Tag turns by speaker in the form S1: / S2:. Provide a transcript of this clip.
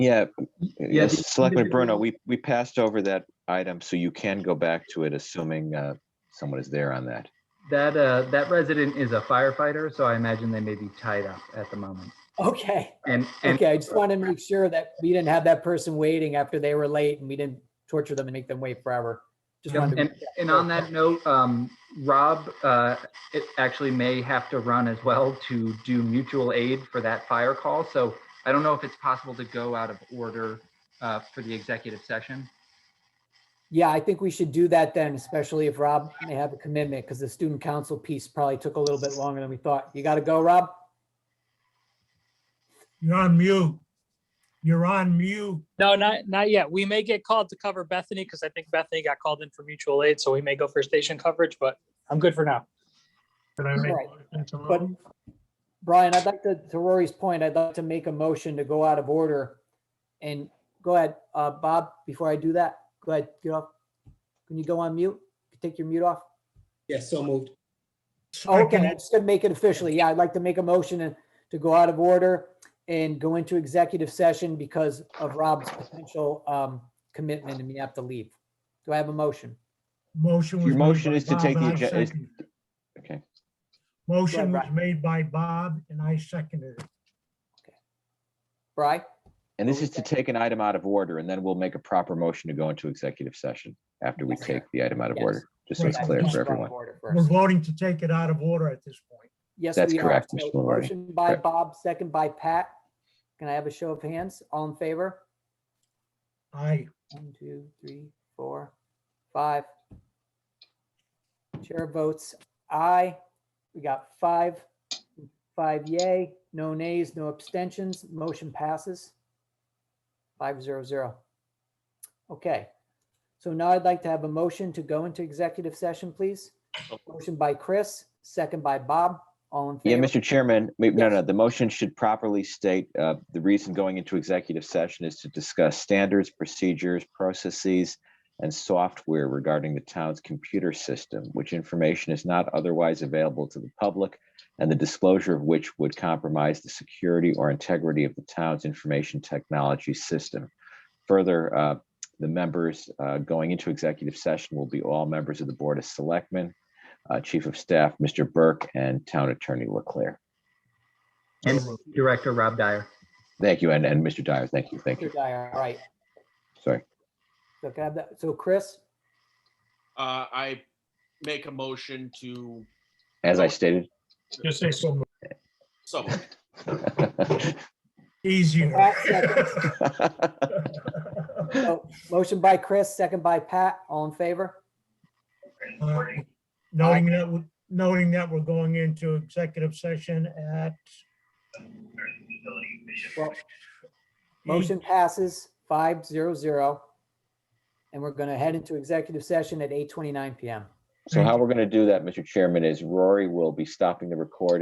S1: Yeah,
S2: Yeah,
S1: yes,
S2: the
S1: Selectman Bruno,
S2: individual-
S1: we, we passed over that item, so you can go back to it, assuming uh, someone is there on that.
S2: That, uh, that resident is a firefighter, so I imagine they may be tied up at the moment.
S3: Okay,
S2: And, and
S3: okay, I just want to make sure that we didn't have that person waiting after they were late and we didn't torture them and make them wait forever. Just
S2: Yep,
S3: wanted to-
S2: And, and on that note, um, Rob, uh, it actually may have to run as well to do mutual aid for that fire call. So I don't know if it's possible to go out of order, uh, for the executive session.
S3: Yeah, I think we should do that then, especially if Rob may have a commitment, because the student council piece probably took a little bit longer than we thought. You got to go, Rob?
S4: You're on mute. You're on mute.
S5: No, not, not yet. We may get called to cover Bethany because I think Bethany got called in for mutual aid, so we may go for station coverage, but I'm good for now.
S4: Can I make
S3: Right,
S4: a motion to
S3: But
S4: move?
S3: Brian, I'd like to, to Rory's point, I'd like to make a motion to go out of order. And go ahead, uh, Bob, before I do that, go ahead, get off. Can you go on mute? Take your mute off?
S6: Yes, so moved.
S3: Okay,
S4: Second
S3: I'm
S4: it.
S3: just gonna make it officially. Yeah, I'd like to make a motion and- to go out of order and go into executive session because of Rob's potential um, commitment and we have to leave. Do I have a motion?
S4: Motion was.
S1: Your
S4: made by
S1: motion is to
S4: Bob,
S1: take the
S4: and I
S1: agen- is-
S4: seconded it.
S1: Okay,
S4: Motion
S3: Yeah,
S4: was
S3: right.
S4: made by Bob and I seconded it.
S3: Bry?
S1: and this is to take an item out of order, and then we'll make a proper motion to go into executive session after we
S3: Yes.
S1: take the item out of
S3: Yes.
S1: order, just so it's
S4: Right.
S1: clear
S4: Yes.
S1: for everyone.
S4: We're voting to take it out of order at this point.
S3: Yes,
S1: That's
S3: we are.
S1: correct,
S3: So,
S1: Mr. Lombardi.
S3: Motion by
S1: Correct.
S3: Bob, second by Pat. Can I have a show of hands? All in favor?
S4: Aye.
S3: One, two, three, four, five. Chair votes aye. We got five, five yay, no nays, no abstentions. Motion passes. Five zero zero. Okay. So now I'd like to have a motion to go into executive session, please. Motion by Chris, second by Bob. All in
S1: Yeah,
S3: favor?
S1: Mr. Chairman, wait, no,
S3: Yes.
S1: no, the motion should properly state, uh, the reason going into executive session is to discuss standards, procedures, processes, and software regarding the town's computer system, which information is not otherwise available to the public, and the disclosure of which would compromise the security or integrity of the town's information technology system. Further, uh, the members uh, going into executive session will be all members of the Board of Selectmen, uh, Chief of Staff, Mr. Burke, and Town Attorney Leclerc.
S2: And
S4: So moved.
S2: Director Rob Dyer.
S1: Thank you, and, and Mr. Dyer, thank you, thank you,
S3: Mr. Dyer, All right.
S1: sorry.
S3: So can I have that? So Chris,
S6: Uh, I make a motion to,
S1: As I stated.
S4: Just say so. moved.
S6: so moved.
S4: Easier.
S3: Pat, second. So, oh, Motion by Chris, second by Pat. All in favor?
S4: Aye. Uh, Knowing that, we- knowing that we're going into executive session at.
S3: Well,
S4: Hmm.
S3: Motion passes five zero zero. And we're going to head into executive session at eight twenty-nine PM.
S1: So how we're gonna do that, Mr. Chairman, is Rory will be stopping the recording.